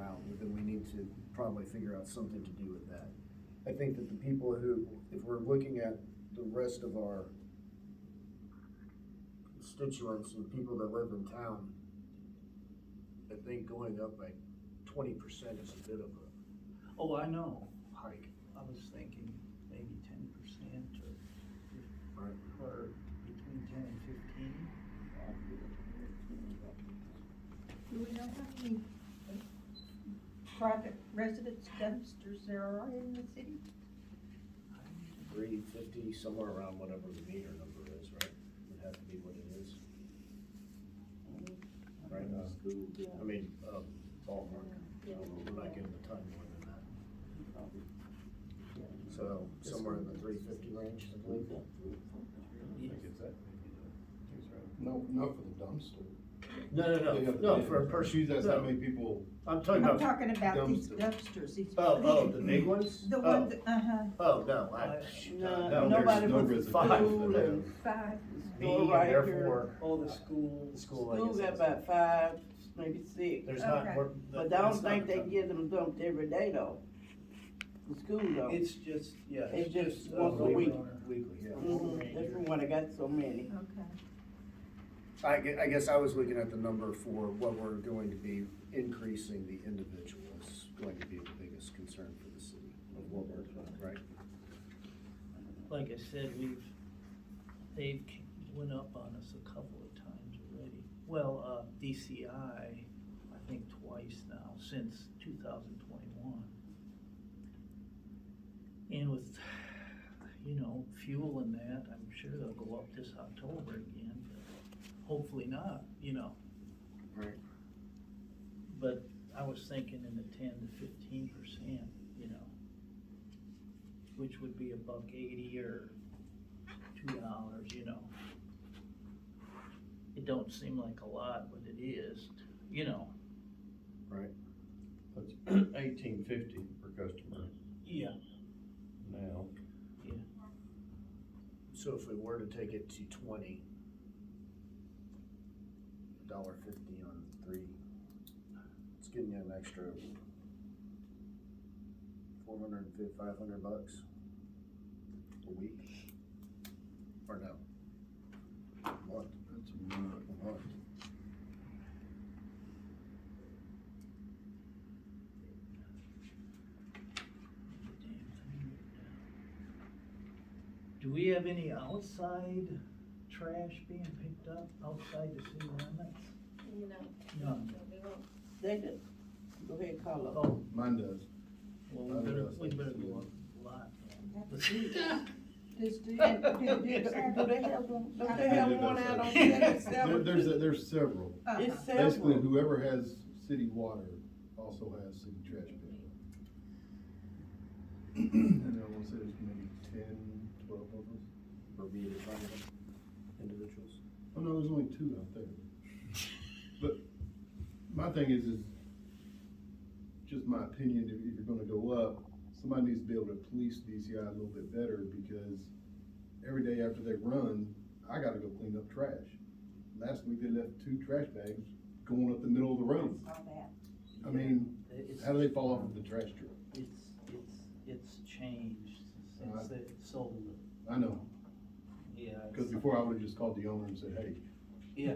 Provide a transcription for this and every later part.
out, then we need to probably figure out something to do with that. I think that the people who, if we're looking at the rest of our constituents and people that live in town, I think going up by twenty percent is a bit of a Oh, I know, hike, I was thinking maybe ten percent or, right? fif- or between ten and fifteen. Do we know how many uh, private residence dumpsters there are in the city? Three fifty, somewhere around whatever the meter number is, right? Would have to be what it is. Right, uh, I mean, uh, ballpark, Yeah. we're not getting a ton more than that. So somewhere in the three fifty range, I believe. No, not for the dumpster. No, no, They no, have the no, bin. for a person. She's asked how no. many people, I'm I'm talking about, talking about these dumpster. dumpsters, these. oh, oh, the big- big ones? The Oh, one, that- uh-huh. Oh, no, I, No, no, nobody there's puts no food five for in. them. Five. Me and right therefore, Oh, the school. the school, I School guess. got is- about five, maybe six, There's not, Okay. we're- but I that's not don't think a they ton. get them dumped every day though. The school don't. It's just, yeah. It's just uh, once a week. Weekly, yeah. Mhm, That's from when I got so many. Okay. I gue- I guess I was looking at the number for what we're going to be increasing the individuals, going to be the biggest concern for the city of what we're doing, right? Like I said, we've, they've c- went up on us a couple of times already. Well, uh, DCI, I think twice now, since two thousand twenty-one. And with, you know, fuel and that, I'm sure they'll go up this October again, but hopefully not, you know. Right. But I was thinking in the ten to fifteen percent, you know, which would be a buck eighty or two dollars, you know. It don't seem like a lot, but it is, you know. eighteen fifty per customer Yeah. now. So if we were to take it to twenty, dollar fifty on three, it's getting you an extra four hundred and fifty, five hundred bucks a week, or no? A month, That's a lot. a month. Do we have any outside trash being picked up outside the city limits? No, No. no, we won't. They did, go ahead, call up. Oh, Mine does. well, we better, we better go up a lot. Does, do, And do, do- do- do they have one, don't they have one out on There- seven? There's, there's several. uh-huh, It's Basically, several. whoever has city water also has city trash pickup. And I wanna say there's maybe ten, twelve of us. Or be it five individuals? Oh, no, there's only two out there. But my thing is, is just my opinion, if, if you're gonna go up, somebody needs to be able to police DCI a little bit better because every day after they run, I gotta go clean up trash. Last week, they left two trash bags going up the middle of the road. All that. I mean, It's- how do they fall off of the trash truck? It's, it's, it's changed since Alright. they sold it, I know, yeah. it's- cause before I would've just called the owner and said, hey, Yeah.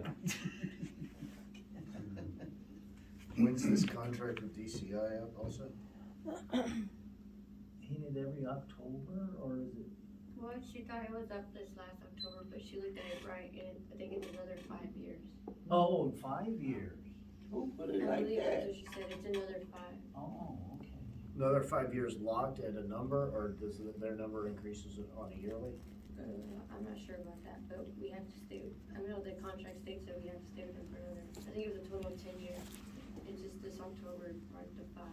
When's this contract with DCI up also? Painted every October, or is it, Well, she thought it was up this last October, but she looked at it right, and I think it's another five years. oh, in five years? Who put it I like believe that? that's what she said, it's another five. Oh, okay. Another five years locked at a number, or does th- their number increases on a yearly? Uh, I'm not sure about that, but we have to stay, I know the contract states that we have to stay with them for another, I think it was a total of ten years. It's just this October marked the five.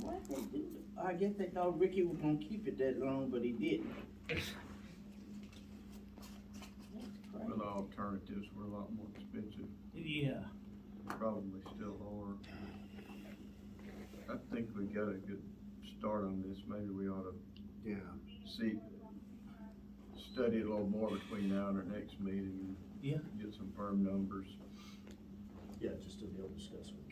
Why they do that? I guess they thought Ricky was gonna keep it that long, but he didn't. That's crazy. But alternatives were a lot more expensive, Yeah, probably still are. I think we got a good start on this, maybe we ought to Yeah. see, study it a little more between now and our next meeting. and Yeah. Get some firm numbers. Yeah, just to be able to discuss with